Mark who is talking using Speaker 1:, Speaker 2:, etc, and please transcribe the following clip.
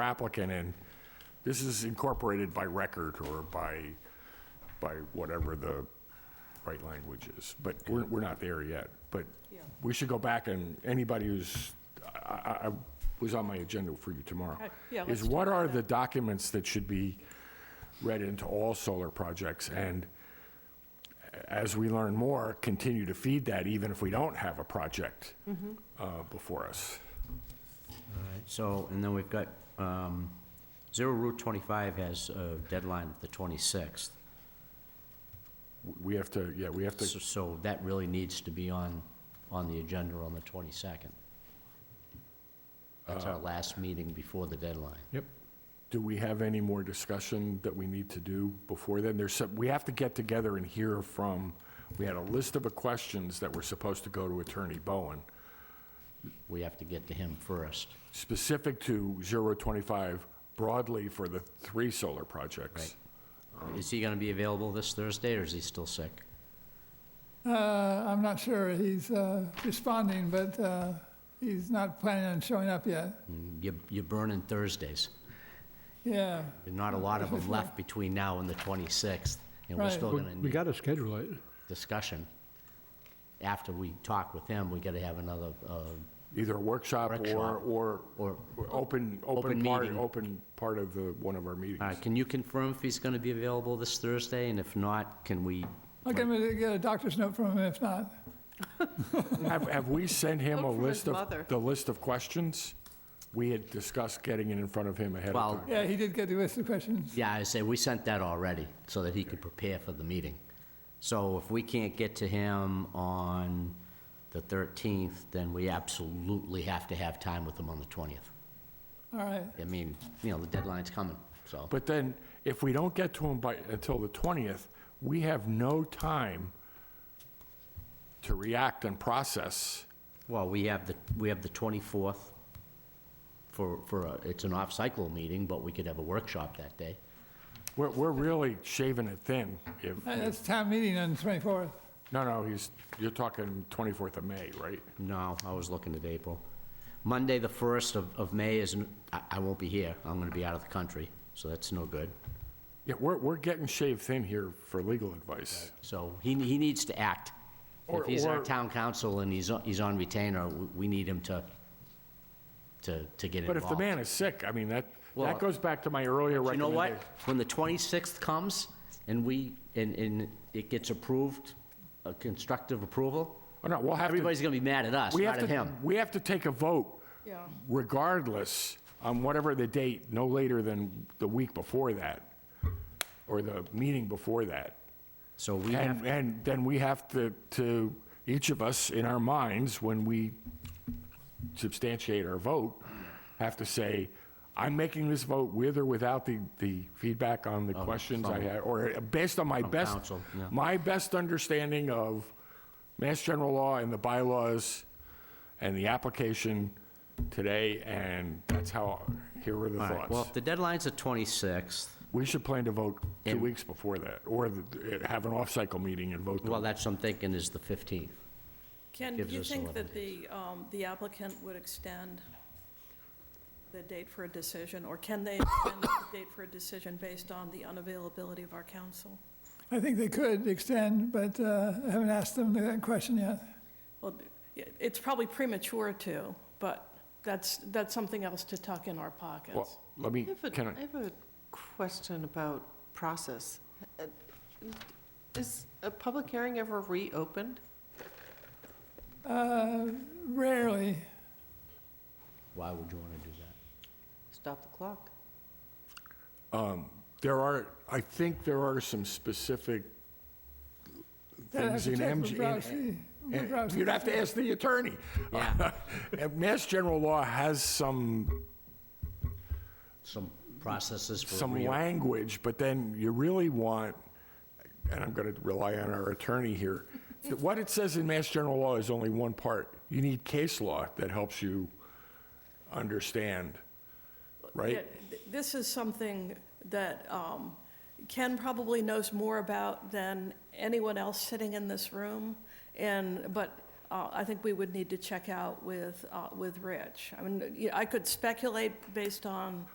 Speaker 1: applicant in, this is incorporated by record or by, by whatever the right language is. But we're, we're not there yet. But we should go back and anybody who's, I, I- I was on my agenda for you tomorrow.
Speaker 2: Okay, Uh, yeah,
Speaker 1: Is
Speaker 2: let's talk
Speaker 1: what are
Speaker 2: about
Speaker 1: the documents that should be read into all solar projects? And as we learn more, continue to feed that even if we don't have a project
Speaker 2: Mm-hmm.
Speaker 1: uh, before us.
Speaker 3: Alright, So, and then we've got, um, Zero Route 25 has a deadline of the 26th.
Speaker 1: We have to, yeah, we have to,
Speaker 3: So so that really needs to be on, on the agenda on the 22nd. That's
Speaker 4: Uh,
Speaker 3: our last meeting before the deadline.
Speaker 1: do we have any more discussion that we need to do before then? There's, some- we have to get together and hear from, we had a list of questions that were supposed to go to Attorney Bowen,
Speaker 3: We have to get to him first.
Speaker 1: specific to 025 broadly for the three solar projects.
Speaker 3: Is he gonna be available this Thursday, or is he still sick?
Speaker 5: Uh, I'm not sure he's uh, responding, but uh, he's not planning on showing up yet.
Speaker 1: Hmm.
Speaker 3: Mm, You're, you're burning Thursdays.
Speaker 5: Yeah,
Speaker 3: There's not a lot of them left between now and the 26th, and we're
Speaker 5: Right.
Speaker 3: still
Speaker 4: We-
Speaker 3: gonna
Speaker 4: We
Speaker 3: need
Speaker 4: got to schedule it.
Speaker 3: discussion. After we talk with him, we gotta have another, uh,
Speaker 1: Either a workshop or,
Speaker 3: Workshop.
Speaker 1: or,
Speaker 3: or
Speaker 1: or open, open
Speaker 3: Open
Speaker 1: part,
Speaker 3: meeting.
Speaker 1: open part of the, one of our
Speaker 3: All
Speaker 1: meetings.
Speaker 3: right, Uh, can you confirm if he's going to be available this Thursday, and if not, can we?
Speaker 5: I'll get him to get a doctor's note from him if not.
Speaker 1: Have, have we sent him a
Speaker 2: Look for his
Speaker 1: list of,
Speaker 2: mother.
Speaker 1: the list of questions? We had discussed getting it in front of him ahead of
Speaker 3: Well,
Speaker 1: time.
Speaker 5: Yeah, he did get the list of questions.
Speaker 3: yeah, I say, we sent that already, so that he could prepare for the meeting. So if we can't get to him on the 13th, then we absolutely have to have time with him on the 20th.
Speaker 5: All right,
Speaker 3: I mean, you know, the deadline's coming, so.
Speaker 1: But then, if we don't get to him by, until the 20th, we have no time to react and process.
Speaker 3: Well, we have the, we have the 24th for, for, a- it's an off-cycle meeting, but we could have a workshop that day.
Speaker 1: We're, we're really shaving it thin. If,
Speaker 5: Uh, that's town meeting on the 24th.
Speaker 1: no, no, he's, you're talking 24th of May, right?
Speaker 3: No, I was looking at April. Monday, the 1st of, of May is, n- I, I won't be here. I'm gonna be out of the country, so that's no good.
Speaker 1: Yeah, we're, we're getting shaved thin here for legal advice.
Speaker 3: So he, he needs to act.
Speaker 1: Or-
Speaker 3: If he's our
Speaker 1: or-
Speaker 3: town council and he's, on- he's on retainer, we, we need him to, to, to get
Speaker 1: But
Speaker 3: involved.
Speaker 1: if the man is sick, I mean, that,
Speaker 3: Well,
Speaker 1: that goes back to my earlier
Speaker 3: You know
Speaker 1: recommendation.
Speaker 3: what? When the 26th comes and we, and, and it gets approved, a constructive approval,
Speaker 1: Oh, no, we'll have to-
Speaker 3: everybody's gonna be mad at us,
Speaker 1: We
Speaker 3: not
Speaker 1: have
Speaker 3: at
Speaker 1: to,
Speaker 3: him.
Speaker 1: we have to take a vote
Speaker 2: Yeah.
Speaker 1: regardless on whatever the date, no later than the week before that or the meeting before that.
Speaker 3: So we have
Speaker 1: And, and then we have to, to, each of us in our minds, when we substantiate our vote, have to say, I'm making this vote with or without the, the feedback on the questions I had, or uh, based on my best,
Speaker 3: counsel, yeah.
Speaker 1: my best understanding of Mass General Law and the bylaws and the application today, and that's how, here are the
Speaker 3: All right, Well,
Speaker 1: thoughts.
Speaker 3: if the deadline's the 26th,
Speaker 1: We should plan to vote two
Speaker 3: And-
Speaker 1: weeks before that, or the- have an off-cycle meeting and vote the
Speaker 3: well, that's what I'm thinking is the 15th.
Speaker 2: Ken, do
Speaker 3: Gives
Speaker 2: you
Speaker 3: us
Speaker 2: think
Speaker 3: 11
Speaker 2: that the, um, the applicant would extend the date for a decision, or can they extend the date for a decision based on the unavailability of our counsel?
Speaker 5: I think they could extend, but uh, I haven't asked them that question yet.
Speaker 2: Well, it- it's probably premature to, but that's, that's something else to tuck in our
Speaker 1: Well,
Speaker 2: pockets.
Speaker 1: let me,
Speaker 6: I have
Speaker 1: can
Speaker 6: a- I
Speaker 1: I,
Speaker 6: have a question about process. Uh, Is a public hearing ever reopened?
Speaker 5: Uh, Rarely,
Speaker 3: Why would you want to do that?
Speaker 6: Stop the clock.
Speaker 1: there are, I think there are some specific
Speaker 5: I'd have
Speaker 1: things
Speaker 5: to
Speaker 1: in
Speaker 5: check with
Speaker 1: MG.
Speaker 5: Bobrowski.
Speaker 1: in- in-
Speaker 5: Bobrowski.
Speaker 1: You'd have to ask the attorney.
Speaker 3: Yeah.
Speaker 1: And Mass general law has some,
Speaker 3: Some processes for
Speaker 1: some
Speaker 3: real.
Speaker 1: language, but then you really want, and I'm going to rely on our attorney here, that what it says in Mass general law is only one part. You need case law that helps you understand, right?
Speaker 2: Yeah, th- This is something that um, Ken probably knows more about than anyone else sitting in this room, and, but uh, I think we would need to check out with, uh, with Rich. I mean, you know, I could speculate based on